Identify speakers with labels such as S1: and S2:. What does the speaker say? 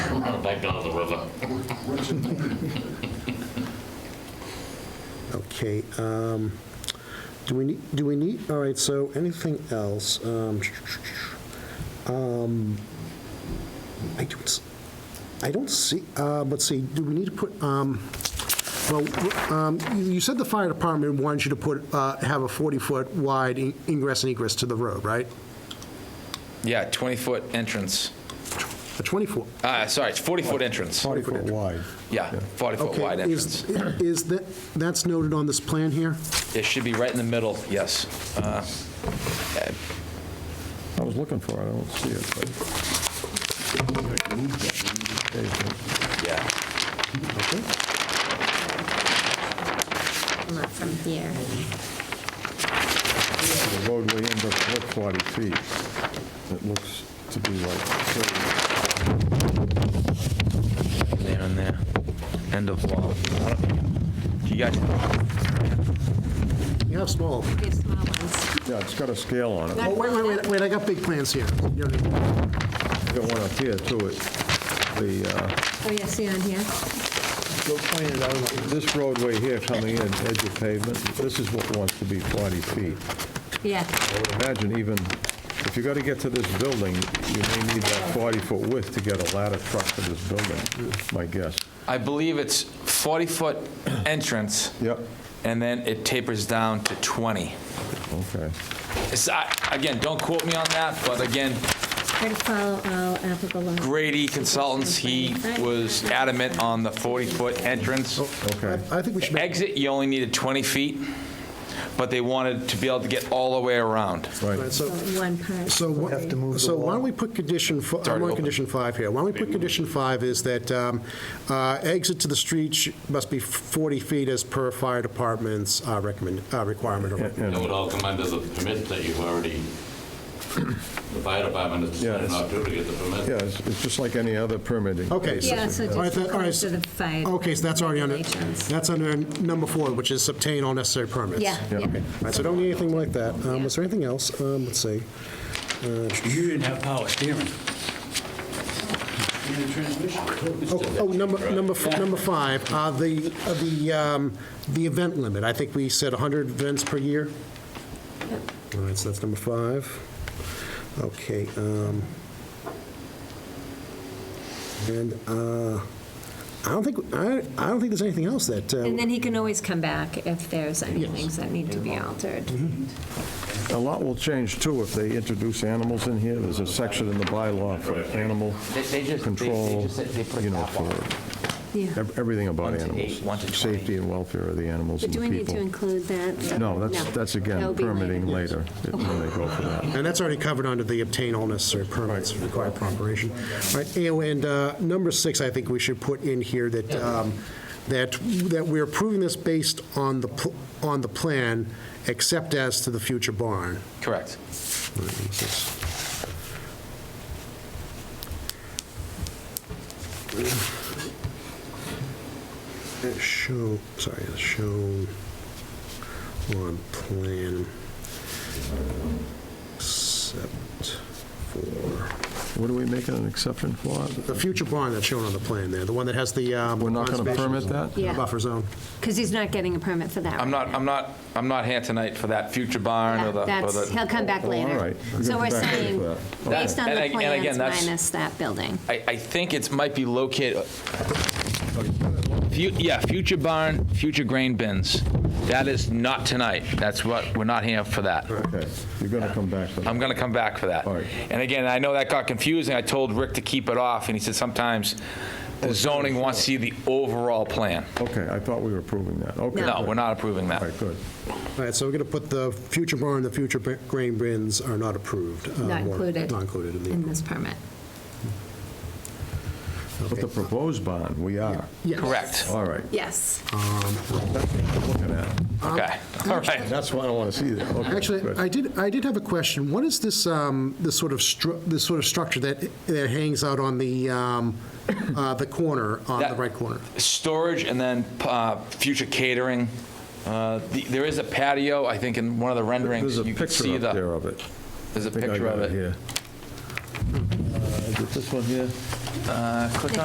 S1: back down to the river.
S2: Okay, um, do we, need? do we need, all right, so anything else? Um, um, I don't, s- I don't see, uh, let's see, do we need to put, um, well, um, you said the fire department wants you to put, uh, have a 40-foot wide in- ingress and egress to the road, right?
S3: Yeah, 20-foot entrance.
S2: A 24.
S3: Uh, Sorry, it's 40-foot entrance.
S4: 40-foot wide.
S3: Yeah, 40-foot
S2: Okay,
S3: wide
S2: is-
S3: entrance.
S2: Is that, that's noted on this plan here?
S3: It should be right in the middle, yes. Uh,
S4: I was looking for it, I don't see it, but...
S3: Yeah.
S5: Come up from here.
S4: The roadway ends up at 40 feet. It looks to be like 30.
S3: There and there. End of wall. I don't- Do you guys,
S2: You have small.
S5: We have small ones.
S4: Yeah, it's got a scale on it.
S2: Oh, wait, wait, wait, wait, I got big plans here. You don't need-
S4: We've got one up here, too. It- The, uh,
S5: Oh, yeah, see on here?
S4: this roadway here coming in, edge of pavement, this is what wants to be 40 feet.
S5: Yeah,
S4: I would imagine even, if you got to get to this building, you may need that 40-foot width to get a ladder truck to this building, my guess.
S3: I believe it's 40-foot entrance,
S4: Yep.
S3: and then it tapers down to 20.
S4: Okay.
S3: It's- I- Again, don't quote me on that, but again,
S5: try to follow all applicable laws.
S3: Grady Consultants, he was adamant on the 40-foot entrance.
S2: Oh,
S4: Okay.
S2: I I think we should make
S3: Exit, you only needed 20 feet, but they wanted to be able to get all the way around.
S2: Right,
S4: Right.
S5: So
S2: so,
S5: One part.
S2: so what- so why don't we put condition, fo- I'm
S3: already
S2: on
S3: open.
S2: condition five here. Why don't we put condition five is that um, uh, exit to the street sh- must be 40 feet as per fire department's uh, recommend, uh, requirement. or-
S1: It would all come under the permit that you've already, the fire department has
S4: Yeah,
S1: decided
S4: it's-
S1: not to to get the permit.
S4: Yeah, it's it's just like any other permitting.
S2: Okay.
S5: Yeah, so
S2: all right,
S5: just
S2: that- all right,
S5: close to the fire.
S2: Okay, so that's already under,
S5: regulations.
S2: that's under number four, which is obtain all necessary permits.
S5: Yeah,
S4: Yeah.
S5: yeah.
S2: All right, so don't need anything like that. Um, Was there anything else? Um, Let's see.
S6: You didn't have power steering. In the transmission.
S2: Oh, oh, number, number, f- number five, uh, the, uh, the, um, the event limit, I think we said 100 events per year? All right, so that's number five. Okay, um, and, uh, I don't think, I, I don't think there's anything else that,
S5: And
S2: uh,
S5: then he can always come back if there's any things that need to be altered.
S2: Mm-hmm.
S4: A lot will change, too, if they introduce animals in here. There's a section in the bylaw for animal
S3: They- they just- they- they
S4: control,
S3: just said they put a
S4: you know,
S3: cap on
S4: for
S5: Yeah.
S4: ev- everything about
S3: One to
S4: animals.
S3: eight, one to 20.
S4: Safety and welfare of the animals
S5: But
S4: and
S5: do
S4: the
S5: we need to
S4: people.
S5: include that?
S4: No, that's, that's
S5: That'll
S4: again,
S5: be
S4: permitting later, it- when they go for that.
S2: and that's already covered under the obtain all necessary permits required for operation. All right, and- and, uh, number six, I think we should put in here that, um, that, that we're approving this based on the, pl- on the plan, except as to the future barn.
S3: Correct.
S2: It Show, sorry, it's shown on plan, except for,
S4: What are we making an exception for?
S2: the future barn that's shown on the plan there, the one that has the. um,
S4: We're not going to
S2: conservation
S4: permit that?
S5: Yeah.
S2: Buffer zone.
S5: Because he's not getting a permit for that.
S3: I'm
S5: right
S3: not,
S5: now.
S3: I'm not, I'm not here tonight for that future barn or the. or
S5: That's,
S3: the-
S5: he'll come back
S4: Oh, all
S5: later.
S4: right. We're
S5: So
S4: gonna
S5: we're
S4: come back later
S5: saying,
S4: for that. Okay.
S5: based on
S3: And
S5: the
S3: ag- and again,
S5: plans
S3: that's-
S5: minus that building.
S3: I, I think it's, might be located, Fu- yeah, future barn, future grain bins. That is not tonight. That's what, we're not here for that.
S4: Okay, you're going to come back to that.
S3: I'm going to come back for that.
S4: All right.
S3: And again, I know that got confusing. I told Rick to keep it off, and he said sometimes the zoning wants to see the overall plan.
S4: Okay, I thought we were approving that, okay.
S3: No,
S4: good.
S3: we're not approving
S4: All
S3: that.
S4: right, good.
S2: All right, so we're going to put the future barn and the future b- grain bins are not approved. uh,
S5: Not
S2: or
S5: included.
S2: Not included in the.
S5: In this permit.
S4: But the proposed bond, we are.
S2: Yes.
S3: Correct.
S4: All right,
S5: Yes.
S4: that's what I'm looking at.
S3: Okay, all right.
S4: That's why I want to see that. Okay,
S2: Actually,
S4: good.
S2: I did, I did have a question. What is this, um, this sort of, stru- this sort of structure that, that hangs out on the, um, uh, the corner, on the
S3: That-
S2: right corner?
S3: Storage and then uh, future catering. Uh, the- There is a patio, I think, in one of the renderings.
S4: There's a
S3: you can
S4: picture
S3: see
S4: up
S3: the-
S4: there of it.
S3: There's a
S4: I think I
S3: picture
S4: got
S3: of it.
S4: here. Uh, Is it this one here?
S3: Uh, Click